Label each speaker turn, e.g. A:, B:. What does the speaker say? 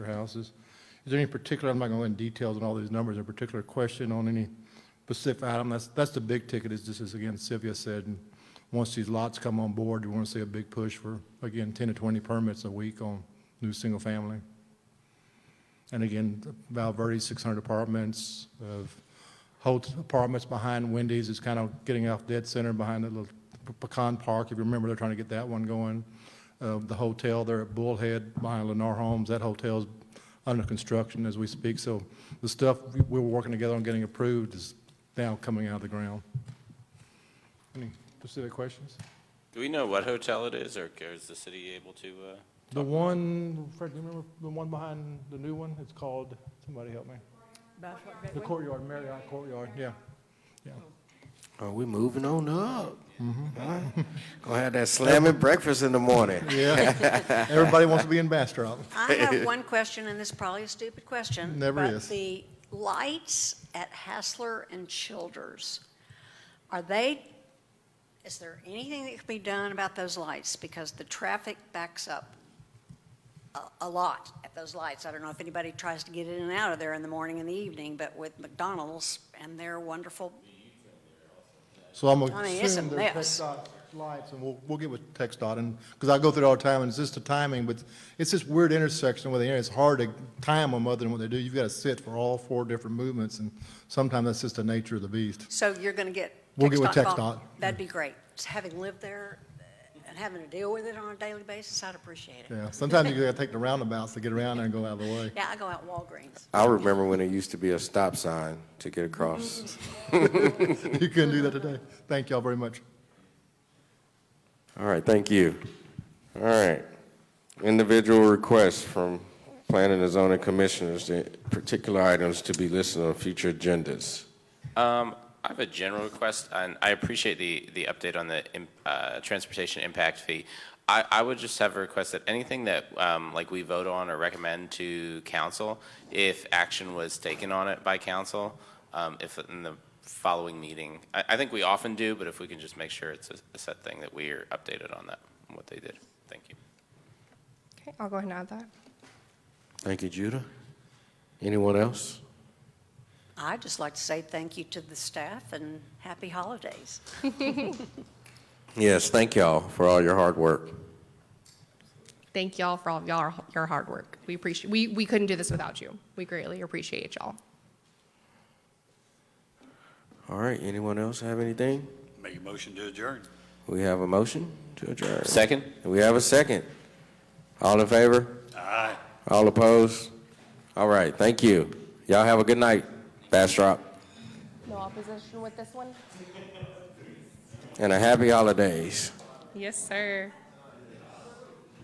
A: for houses. Is there any particular, I'm not going to go in details on all these numbers, a particular question on any specific item? That's, that's the big ticket, is just as, again, Sylvia said, and once these lots come on board, you want to see a big push for, again, 10 to 20 permits a week on new single-family. And again, Valverde, 600 apartments, of whole apartments behind Wendy's is kind of getting off dead center behind the little Pe- Pecan Park, if you remember, they're trying to get that one going. Uh, The hotel there at Bullhead behind Lennar Homes, that hotel's under construction as we speak. So the stuff we- we were working together on getting approved is now coming out of the ground. Any specific questions?
B: Do we know what hotel it is, or is the city able to, uh,
A: The one, Fred, do you remember the one behind the new one? It's called, somebody help me. The courtyard, Marriott Courtyard, yeah.
C: Oh, we moving on up.
A: Mm-hmm.
C: Huh? Gonna have that slamming breakfast in the morning.
A: Yeah. Everybody wants to be in Bastrop.
D: I have one question, and this is probably a stupid question.
A: Never is.
D: But the lights at Hassler and Childers, are they, is there anything that can be done about those lights? Because the traffic backs up a, a lot at those lights. I don't know if anybody tries to get in and out of there in the morning and the evening, but with McDonald's and their wonderful,
A: So I'm gonna
D: I mean, it's a
A: assume they're
D: mess.
A: TxDOT lights, and we'll, we'll get with TxDOT, and, because I go through it all the time, and it's just the timing, but it's this weird intersection where they, it's hard to time them other than what they do. You've got to sit for all four different movements, and sometimes that's just the nature of the beast.
D: so you're going to get.
A: We'll get with
D: call-
A: TxDOT.
D: That'd be great. Having lived there and having to deal with it on a daily basis, I'd appreciate it.
A: Yeah, sometimes you gotta take the roundabouts to get around there and go out of the way.
D: Yeah, I go out Walgreens.
C: I remember when it used to be a stop sign to get across.
A: You couldn't do that today. Thank y'all very much.
C: All right, thank you. All right. Individual requests from planning and zoning commissioners, the particular items to be listed on future agendas.
B: Um, I have a general request, and I appreciate the, the update on the im- uh, transportation impact fee. I, I would just have a request that anything that, um, like, we vote on or recommend to council, if action was taken on it by council, um, if in the following meeting, I, I think we often do, but if we can just make sure it's a a set thing that we're updated on that, and what they did. Thank you.
E: Okay, I'll go ahead and add that.
C: Thank you, Judah. Anyone else?
D: I'd just like to say thank you to the staff and happy holidays.
C: Yes, thank y'all for all your hard work.
E: Thank y'all for all of y'all, your hard work. We appreciate, we, we couldn't do this without you. We greatly appreciate y'all.
C: All right, anyone else have anything?
F: Make a motion to adjourn.
C: We have a motion to adjourn.
B: Second?
C: We have a second. All in favor?
F: Aye.
C: All opposed? All right, thank you. Y'all have a good night, Bastrop,
E: No opposition with this one?
C: and a happy holidays.
E: Yes, sir.